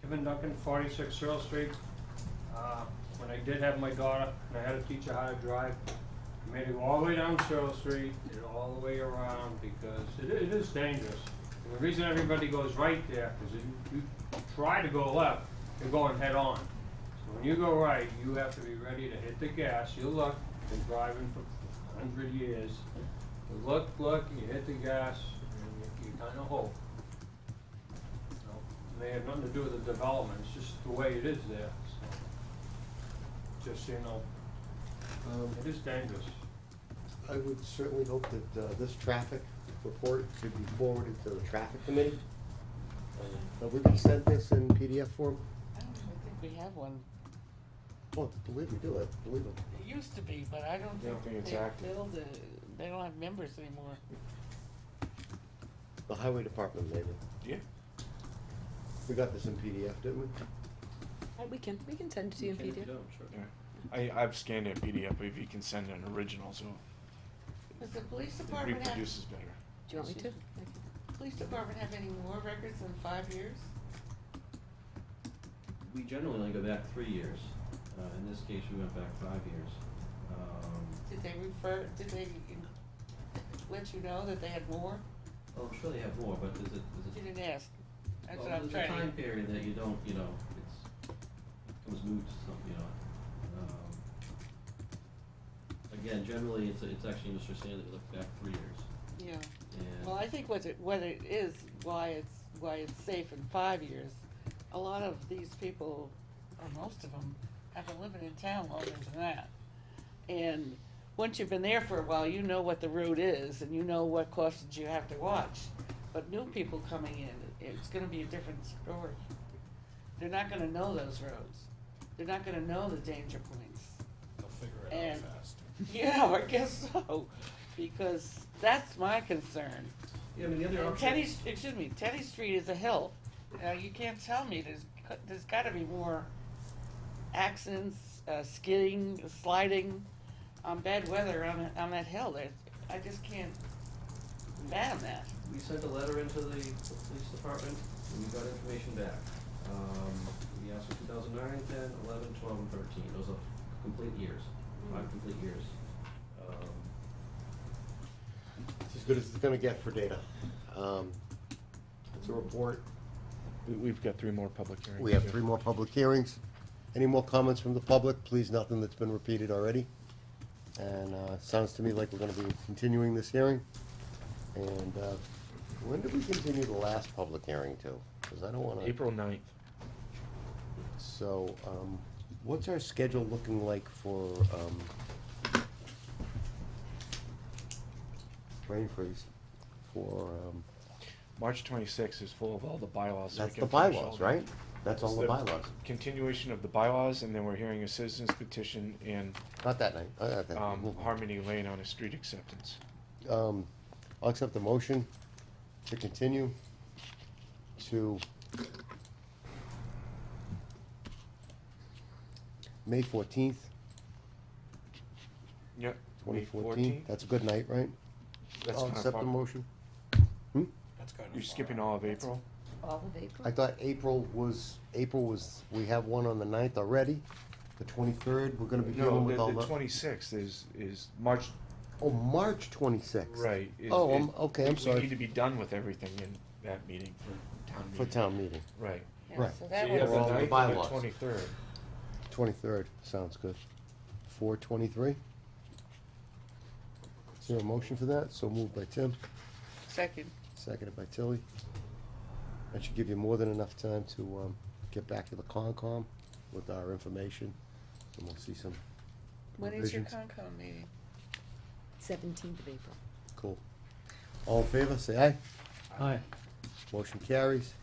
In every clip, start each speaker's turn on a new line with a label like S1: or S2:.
S1: Benjamin Duncan, forty-six Searle Street. Uh, When I did have my daughter, and I had to teach her how to drive, I made her go all the way down Searle Street, and all the way around, because it, i- it is dangerous. And the reason everybody goes right there is if you, you try to go left, you're going head-on. So when you go right, you have to be ready to hit the gas, you look, been driving for a hundred years. You look, look, you hit the gas, and you- you kinda hope. No, They have nothing to do with the development, it's just the way it is there, so. Just, you know,
S2: Um,
S1: it is dangerous.
S2: I would certainly hope that uh, this traffic report could be forwarded to the traffic committee. Have we been sent this in PDF form?
S3: I don't even think we have one.
S2: Oh, believe me, do it, believe it.
S3: It used to be, but I don't
S4: don't think
S3: think
S4: it's
S3: they
S4: active.
S3: filled it. They don't have members anymore.
S2: The highway department maybe.
S4: Yeah.
S2: We got this in PDF, didn't we?
S5: Uh, We can, we can send it to you in
S1: Can be
S5: PDF.
S1: done, sure.
S4: I, I've scanned it PDF, but if you can send an original, so
S3: Does the police
S4: it
S3: department have,
S4: reproduces better.
S5: Do you want me to?
S3: police department have any more records than five years?
S6: we generally only go back three years. Uh, in this case, we went back five years. Um,
S3: Did they refer, did they in- let you know that they had more?
S6: oh, I'm sure they have more, but there's a,
S3: You
S6: there's a,
S3: didn't ask. That's
S6: well,
S3: what I'm
S6: there's a time
S3: trying.
S6: period that you don't, you know, it's, becomes moot, to some, you know. Um, Again, generally, it's, it's actually Mr. Stanley, we look back three years,
S3: Yeah.
S6: and.
S3: Well, I think what it, what it is, why it's, why it's safe in five years, a lot of these people, or most of them, have been living in town longer than that. And once you've been there for a while, you know what the route is and you know what crossings you have to watch. But new people coming in, it's gonna be a different story. They're not gonna know those roads. They're not gonna know the danger points.
S7: They'll figure it
S3: And-
S7: out fast.
S3: Yeah, I guess so, because that's my concern.
S6: Yeah, I mean, the other
S3: And
S6: option.
S3: Teddy, excuse me, Teddy Street is a hill. Now, you can't tell me, there's, there's gotta be more accidents, uh, skidding, sliding on bad weather on, that- on that hill. There's, I just can't imagine that.
S6: we sent a letter into the police department, and we got information back. Um, we asked for two thousand nine, ten, eleven, twelve, and thirteen, those are complete years, five complete years. Um,
S2: It's as good as it's gonna get for data. Um, It's a report.
S4: We, we've got three more public hearings.
S2: We have three more public hearings. Any more comments from the public? Please, nothing that's been repeated already. And uh, it sounds to me like we're gonna be continuing this hearing. And uh, when did we continue the last public hearing to? Because I don't wanna.
S4: April ninth.
S2: So, um, what's our schedule looking like for, um, rain freeze? For, um,
S4: March twenty-sixth is full of all the bylaws. so we
S2: that's the
S4: can finish all
S2: bylaws,
S4: of them.
S2: right? That's all
S4: It's
S2: the bylaws.
S4: Continuation of the bylaws, and then we're hearing a citizen's petition and,
S2: Not that night. Uh, that-
S4: um, Harmony Lane on a street acceptance.
S2: Um, I'll accept the motion to continue to May fourteenth,
S4: Yep.
S2: twenty fourteen. That's a good night, right?
S4: That's
S2: I'll
S4: kinda
S2: accept
S4: far.
S2: the motion. Hmm?
S7: That's kind of.
S4: You're
S7: far
S4: skipping
S7: out.
S4: all of April?
S5: All of April?
S2: I thought April was, April was, we have one on the ninth already, the twenty-third, we're gonna be dealing
S4: No,
S2: with all
S4: the, the
S2: the,
S4: twenty-sixth is, is March,
S2: oh, March twenty-sixth.
S4: right. is-
S2: Oh,
S4: is-
S2: I'm, okay, I'm
S4: we- We need to
S2: sorry,
S4: be done with everything in that meeting for town meeting.
S2: for town meeting,
S4: Right.
S3: Yeah,
S2: Right.
S3: So
S7: So
S3: that
S7: you have
S3: was,
S2: We're all
S4: The
S2: on the
S4: ninth and the
S2: bylaws.
S4: twenty-third.
S2: twenty-third, sounds good. Four twenty-three? Is there a motion for that? So moved by Tim,
S3: second,
S2: seconded by Tilly. That should give you more than enough time to, um, get back to the Concom with our information, and we'll see some
S3: when is your
S2: revisions.
S3: Concom meeting?
S5: Seventeenth of April.
S2: Cool. All in favor, say aye. Aye. Motion carries.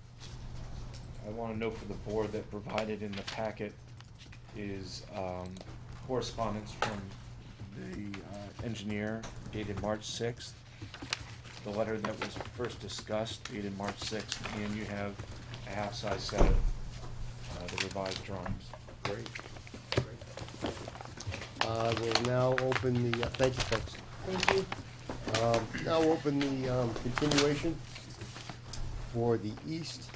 S4: I wanna know for the board that provided in the packet is, um, correspondence from the, uh, engineer dated March sixth. The letter that was first discussed dated March sixth, and you have a half-size set of, uh, the revised drawings.
S2: Great. Uh, we'll now open the, uh, thank you, folks.
S5: Thank you.
S2: Um, now open the, um, continuation for the East